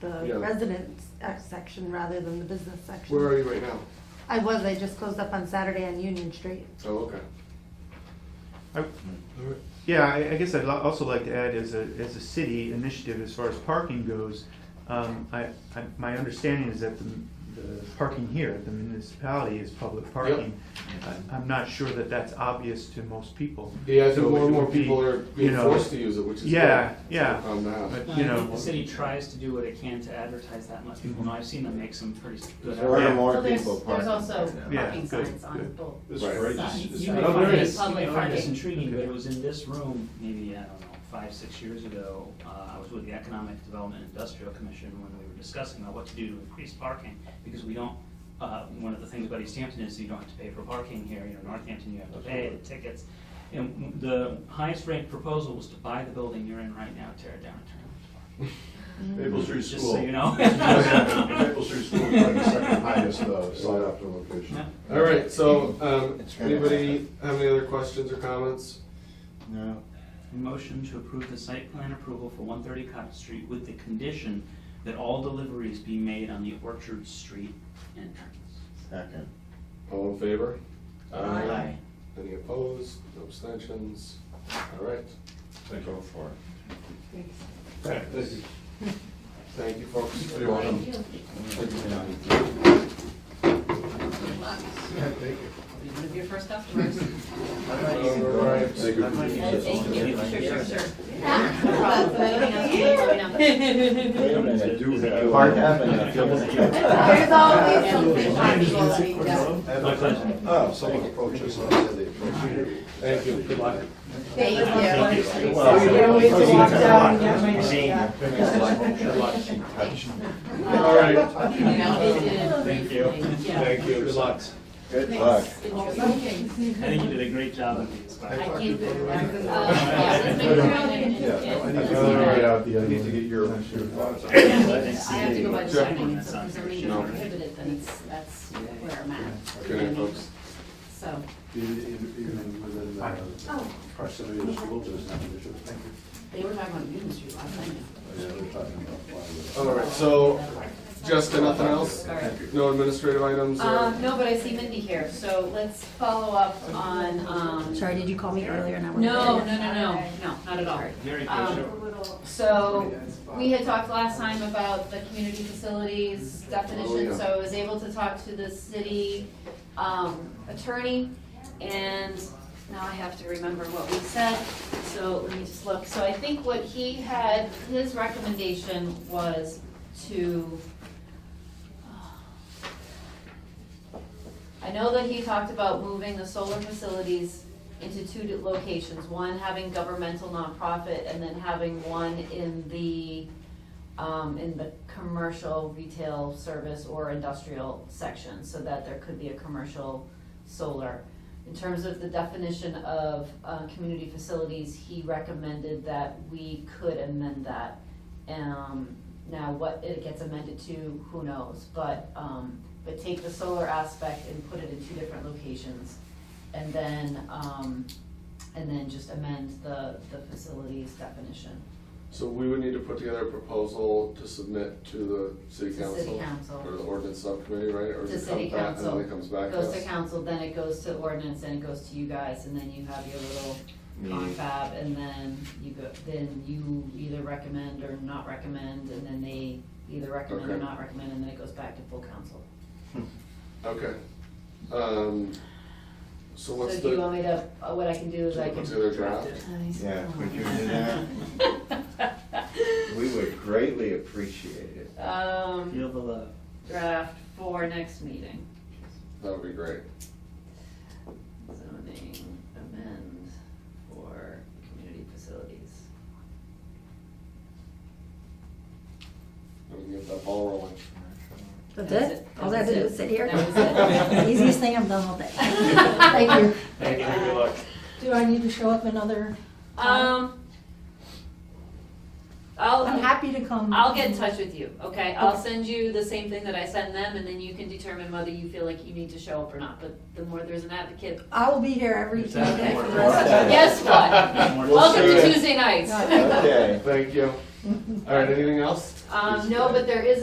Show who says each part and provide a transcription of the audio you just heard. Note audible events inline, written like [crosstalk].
Speaker 1: the
Speaker 2: Yeah.
Speaker 1: residence uh, section rather than the business section.
Speaker 2: Where are you right now?
Speaker 1: I was, I just closed up on Saturday on Union Street.
Speaker 2: Oh, okay.
Speaker 3: I-
Speaker 2: All right.
Speaker 3: Yeah, I, I guess I'd li- also like to add as a, as a city initiative, as far as parking goes, um, I, I, my understanding is that the, the parking here, at the municipality is public parking. I- I'm not sure that that's obvious to most people.
Speaker 2: Yeah, I
Speaker 3: So
Speaker 2: think more
Speaker 3: it
Speaker 2: and more
Speaker 3: would be,
Speaker 2: people are
Speaker 3: you
Speaker 2: being
Speaker 3: know,
Speaker 2: forced to use it, which is.
Speaker 3: Yeah,
Speaker 2: good.
Speaker 3: yeah.
Speaker 2: It's a problem to have.
Speaker 3: But,
Speaker 4: No,
Speaker 3: you
Speaker 4: I
Speaker 3: know.
Speaker 4: think the city tries to do what it can to advertise that and let people know. I've seen them make some pretty good.
Speaker 5: There are
Speaker 3: Yeah.
Speaker 5: more
Speaker 6: So there's,
Speaker 5: people parking.
Speaker 6: there's also
Speaker 5: right now.
Speaker 3: Yeah,
Speaker 6: parking
Speaker 3: good,
Speaker 6: signs on
Speaker 3: good.
Speaker 6: both.
Speaker 5: This
Speaker 2: Right.
Speaker 5: bridge
Speaker 6: Signs.
Speaker 5: is-
Speaker 4: You may
Speaker 3: Oh,
Speaker 4: find
Speaker 3: there
Speaker 4: this,
Speaker 3: is.
Speaker 4: you may
Speaker 6: Public
Speaker 4: find this
Speaker 6: parking.
Speaker 4: intriguing, but it was in this room, maybe, I don't know, five, six years ago. Uh, I was with the Economic Development Industrial Commission when we were discussing about what to do to increase parking, because we don't, uh, one of the things about East Hampton is you don't have to pay for parking here, you know, Northampton, you have to pay the tickets. And the highest ranked proposal was to buy the building you're in right now, tear it down and turn it into parking.
Speaker 5: Maple Street
Speaker 4: Just
Speaker 5: School.
Speaker 4: so
Speaker 5: [laughs]
Speaker 4: you [laughs] know.
Speaker 5: Maple Street School is like the second highest, uh, sought after location.
Speaker 4: [laughs] Yeah.
Speaker 2: All right, so, um,
Speaker 5: It's gonna
Speaker 2: anybody
Speaker 5: happen.
Speaker 2: have any other questions or comments?
Speaker 5: No.
Speaker 4: Motion to approve the site plan approval for one thirty Cottage Street with the condition that all deliveries be made on the Orchard Street entrance.
Speaker 5: Second.
Speaker 2: All in favor?
Speaker 4: Aye.
Speaker 2: Any opposed, no abstentions? All right,
Speaker 5: Go for it.
Speaker 1: Thanks.
Speaker 2: thank you, folks.
Speaker 5: You're welcome.
Speaker 6: You're one of your first customers.
Speaker 2: All right.
Speaker 6: Thank you, sure, sure, sure.
Speaker 5: I do have-
Speaker 7: Park Avenue.
Speaker 5: I feel like-
Speaker 1: There's always something possible that we can do.
Speaker 4: My pleasure.
Speaker 5: Oh, someone approached us, I said they approached you.
Speaker 2: Thank you, good luck.
Speaker 1: Thank you.
Speaker 5: You're welcome.
Speaker 1: You can always walk down and get my-
Speaker 5: Seeing your fingers like- like you touched.
Speaker 2: All right,
Speaker 6: Thank you. Yeah.
Speaker 2: thank you, good luck.
Speaker 5: Good luck.
Speaker 4: I think you did a great job of these. [laughs]
Speaker 6: I
Speaker 4: Bob.
Speaker 6: can't do that. Uh, yeah, let's make it around and-
Speaker 5: Yeah, no, I need
Speaker 6: and-
Speaker 5: to get out the, I need to get your, your thoughts.
Speaker 6: I have to go by the
Speaker 2: Sure.
Speaker 6: sign, so if there's a reason
Speaker 2: No.
Speaker 6: prohibited, then it's, that's where I'm at.
Speaker 2: Good night, folks.
Speaker 6: So,
Speaker 5: Even even within the
Speaker 6: Oh.
Speaker 5: proximity of the school, there's not an issue. Thank you.
Speaker 6: they were talking about Union Street last night.
Speaker 5: Yeah, they're talking about plywood.
Speaker 2: All right, so, Jessica, nothing else? No administrative items? or-
Speaker 6: Um, no, but I see Mindy here, so let's follow up on, um.
Speaker 8: Sorry, did you call me earlier and I wasn't
Speaker 6: No, no,
Speaker 8: there?
Speaker 6: no, no, no, not at all.
Speaker 4: Very
Speaker 6: Um,
Speaker 4: good. Sure.
Speaker 6: So, we had talked last time about the community facilities
Speaker 2: Oh, yeah.
Speaker 6: definition, so I was able to talk to the city, um, attorney, and now I have to remember what we said, so let me just look. So I think what he had, his recommendation was to, I know that he talked about moving the solar facilities into two locations, one having governmental nonprofit and then having one in the, um, in the commercial retail service or industrial section, so that there could be a commercial solar. In terms of the definition of, uh, community facilities, he recommended that we could amend that. Um, now, what it gets amended to, who knows, but, um, but take the solar aspect and put it in two different locations. And then, um, and then just amend the, the facilities definition.
Speaker 2: So we would need to put together a proposal to submit to the city
Speaker 6: To city
Speaker 2: council?
Speaker 6: council.
Speaker 2: Or the ordinance subcommittee, right? Or
Speaker 6: To
Speaker 2: does it
Speaker 6: city
Speaker 2: come back
Speaker 6: council.
Speaker 2: And then it comes back to us?
Speaker 6: Goes to council, then it goes to ordinance, then it goes to you guys, and then you have your little
Speaker 2: Meeting.
Speaker 6: confab, and then you go, then you either recommend or not recommend, and then they either recommend or
Speaker 2: Okay.
Speaker 6: not recommend, and then it goes back to full council.
Speaker 2: Okay. Um, so what's
Speaker 6: So do you want
Speaker 2: the,
Speaker 6: me to, uh, what I can do is
Speaker 2: Can
Speaker 6: I
Speaker 2: you
Speaker 6: can.
Speaker 2: put together a draft?
Speaker 5: Yeah, would you do that?
Speaker 6: [laughs]
Speaker 5: We would greatly appreciate it.
Speaker 6: Um,
Speaker 4: Feel the love.
Speaker 6: draft for next meeting,
Speaker 2: that would be great.
Speaker 6: zoning amend for community facilities.
Speaker 2: And we can get that ball rolling.
Speaker 8: That's
Speaker 6: That's
Speaker 8: it?
Speaker 6: it.
Speaker 8: All I have to do is sit here?
Speaker 6: That
Speaker 2: was it.
Speaker 8: Easiest thing I've done all day. Thank you.
Speaker 4: Thank you. Good luck.
Speaker 8: Do I need to show up another?
Speaker 6: Um, I'll,
Speaker 8: I'm happy to come.
Speaker 6: I'll get in touch with you, okay? I'll send you the same thing that I send them, and then you can determine whether you feel like you need to show up or not, but the more there's an advocate.
Speaker 8: I will be here every
Speaker 4: It's
Speaker 8: Tuesday for the
Speaker 4: out
Speaker 8: rest of the
Speaker 6: Guess what?
Speaker 4: More
Speaker 6: Welcome
Speaker 2: see
Speaker 6: to
Speaker 2: you.
Speaker 6: Tuesday nights.
Speaker 8: Yeah.
Speaker 5: Okay.
Speaker 2: Thank you. All right, anything else?
Speaker 6: Um, no, but there is